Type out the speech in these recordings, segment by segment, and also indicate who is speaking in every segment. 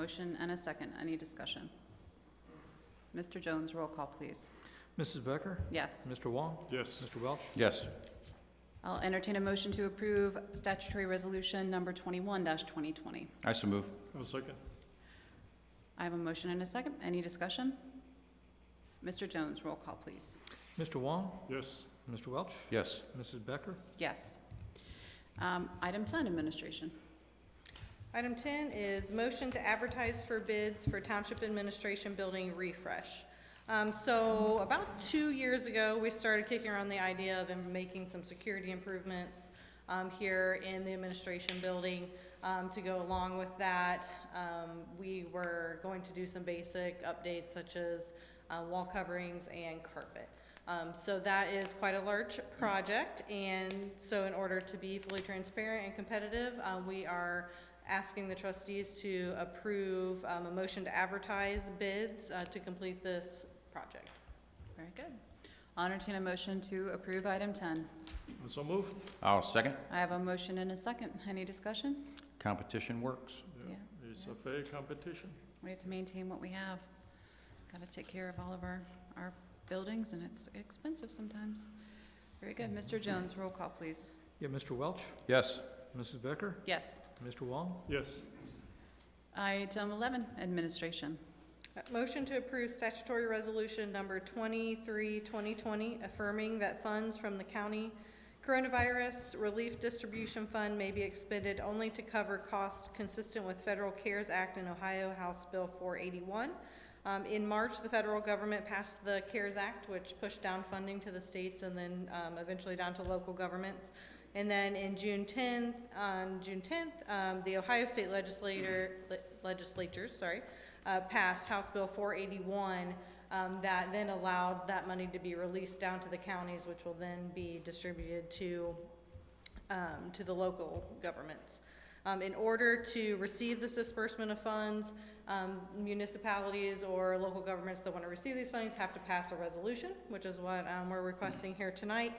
Speaker 1: Motion and a second. Any discussion? Mr. Jones, roll call, please.
Speaker 2: Mrs. Becker?
Speaker 1: Yes.
Speaker 2: Mr. Wong?
Speaker 3: Yes.
Speaker 2: Mr. Welch?
Speaker 4: Yes.
Speaker 1: I'll entertain a motion to approve statutory resolution number twenty-one twenty twenty.
Speaker 4: I so move.
Speaker 3: I'll second.
Speaker 1: I have a motion and a second. Any discussion? Mr. Jones, roll call, please.
Speaker 2: Mr. Wong?
Speaker 3: Yes.
Speaker 2: Mr. Welch?
Speaker 4: Yes.
Speaker 2: Mrs. Becker?
Speaker 1: Yes. Um, item ten, administration.
Speaker 5: Item 10 is motion to advertise for bids for Township Administration Building refresh. Um, So about two years ago, we started kicking around the idea of um, making some security improvements um, here in the administration building. Um, To go along with that, um, we were going to do some basic updates such as uh, wall coverings and carpet. Um, so that is quite a large project, and so in order to be fully transparent and competitive, uh, we are asking the trustees to approve, um, a motion to advertise bids, uh, to complete this project.
Speaker 1: Very good. I'll entertain a motion to approve item ten.
Speaker 3: And so move.
Speaker 4: I'll second.
Speaker 1: I have a motion and a second. Any discussion?
Speaker 4: Competition works.
Speaker 1: Yeah.
Speaker 3: It's a fair competition.
Speaker 1: We have to maintain what we have. Got to take care of all of our, our buildings, and it's expensive sometimes. Very good. Mr. Jones, roll call, please.
Speaker 2: Yeah, Mr. Welch?
Speaker 4: Yes.
Speaker 2: Mrs. Becker?
Speaker 1: Yes.
Speaker 2: Mr. Wong?
Speaker 3: Yes.
Speaker 1: Item eleven, administration.
Speaker 5: Uh, Motion to approve statutory resolution number 23-2020, affirming that funds from the county coronavirus relief distribution fund may be expended only to cover costs consistent with federal CARES Act and Ohio House Bill four eighty-one. Um, in March, the federal government passed the CARES Act, which pushed down funding to the states and then, um, eventually down to local governments. And then in June tenth, on June tenth, um, the Ohio State legislator, le- legislatures, sorry, uh, passed House Bill 481 um, that then allowed that money to be released down to the counties, which will then be distributed to, um, to the local governments. Um, In order to receive this disbursement of funds, um, municipalities or local governments that want to receive these fundings have to pass a resolution, which is what um, we're requesting here tonight.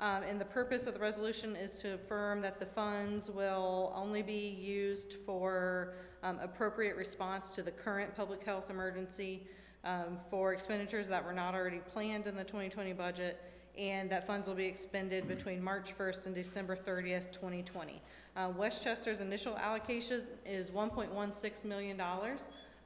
Speaker 5: Um, And the purpose of the resolution is to affirm that the funds will only be used for um, appropriate response to the current public health emergency, um, for expenditures that were not already planned in the 2020 budget, and that funds will be expended between March 1st and December 30th, 2020. Uh, Westchester's initial allocation is $1.16 million.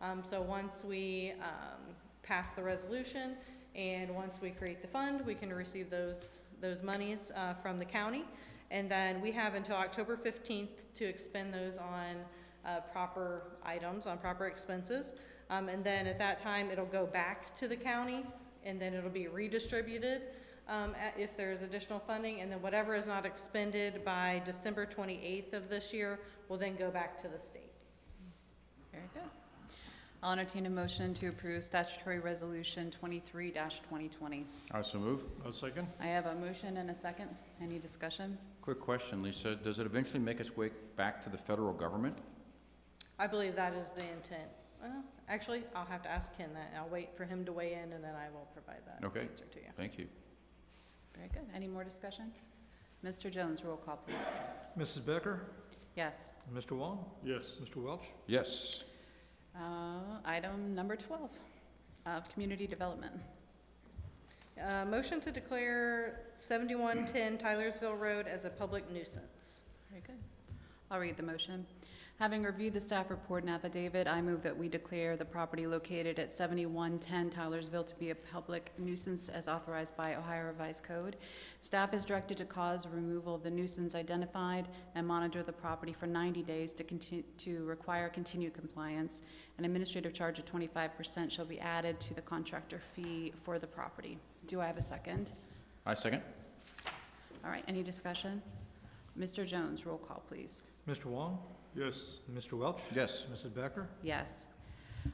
Speaker 5: Um, So once we um, pass the resolution and once we create the fund, we can receive those, those monies uh, from the county. And then we have until October 15th to expend those on uh, proper items, on proper expenses. Um, And then at that time, it'll go back to the county, and then it'll be redistributed um, a- if there's additional funding. And then whatever is not expended by December 28th of this year will then go back to the state.
Speaker 1: Very good. I'll entertain a motion to approve statutory resolution twenty-three twenty twenty.
Speaker 4: I so move.
Speaker 3: I'll second.
Speaker 1: I have a motion and a second. Any discussion?
Speaker 4: Quick question, Lisa. Does it eventually make its way back to the federal government?
Speaker 5: I believe that is the intent. Well, Actually, I'll have to ask Ken that. I'll wait for him to weigh in, and then I will provide that
Speaker 4: Okay.
Speaker 5: answer to you.
Speaker 4: Thank you.
Speaker 1: Very good. Any more discussion? Mr. Jones, roll call, please.
Speaker 2: Mrs. Becker?
Speaker 1: Yes.
Speaker 2: Mr. Wong?
Speaker 3: Yes.
Speaker 2: Mr. Welch?
Speaker 4: Yes.
Speaker 1: Uh, item number twelve, uh, community development.
Speaker 5: Uh, Motion to declare 7110 Tylersville Road as a public nuisance.
Speaker 1: Very good. I'll read the motion. Having reviewed the staff report and affidavit, I move that we declare the property located at 7110 Tylersville to be a public nuisance as authorized by Ohio Revised Code. Staff is directed to cause removal of the nuisance identified and monitor the property for 90 days to continue, to require continued compliance. An administrative charge of 25% shall be added to the contractor fee for the property. Do I have a second?
Speaker 4: I second.
Speaker 1: All right, any discussion? Mr. Jones, roll call, please.
Speaker 2: Mr. Wong?
Speaker 3: Yes.
Speaker 2: Mr. Welch?
Speaker 4: Yes.
Speaker 2: Mrs. Becker?
Speaker 1: Yes.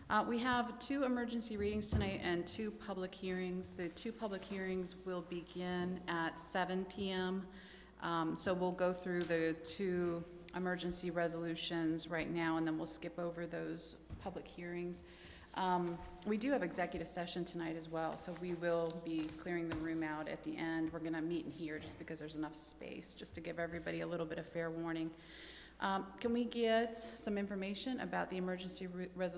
Speaker 1: Uh, We have two emergency readings tonight and two public hearings. The two public hearings will begin at 7 PM. Um, So we'll go through the two emergency resolutions right now, and then we'll skip over those public hearings. Um, We do have executive session tonight as well, so we will be clearing the room out at the end. We're going to meet in here just because there's enough space, just to give everybody a little bit of fair warning. Um, Can we get some information about the emergency re- resolution